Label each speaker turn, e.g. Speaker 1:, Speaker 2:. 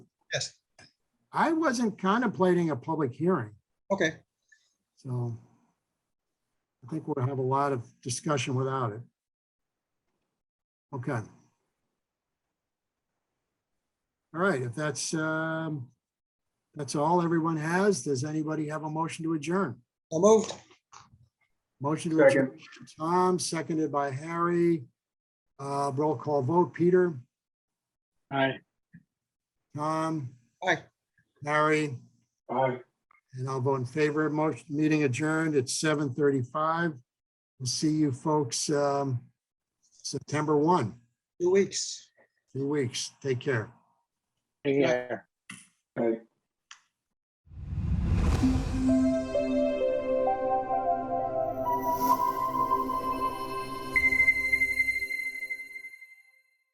Speaker 1: I wasn't contemplating a public hearing,
Speaker 2: Okay,
Speaker 1: so I think we'll oh, have a lot of discussion without it. Okay. All right, if that's, um, that's all everyone has, does anybody have a motion to adjourn?
Speaker 2: so moved.
Speaker 1: Motion to adjourn, Tom, seconded by Harry. Uh, roll call vote, Peter,
Speaker 3: Aye.
Speaker 1: Tom.
Speaker 2: Aye.
Speaker 1: Harry,
Speaker 3: Aye.
Speaker 1: and I'll vote in favor. Motion, meeting adjourned at seven thirty-five. We'll see you folks, um, September one,
Speaker 2: Two weeks.
Speaker 1: two weeks. Take care.
Speaker 3: Yeah. Aye.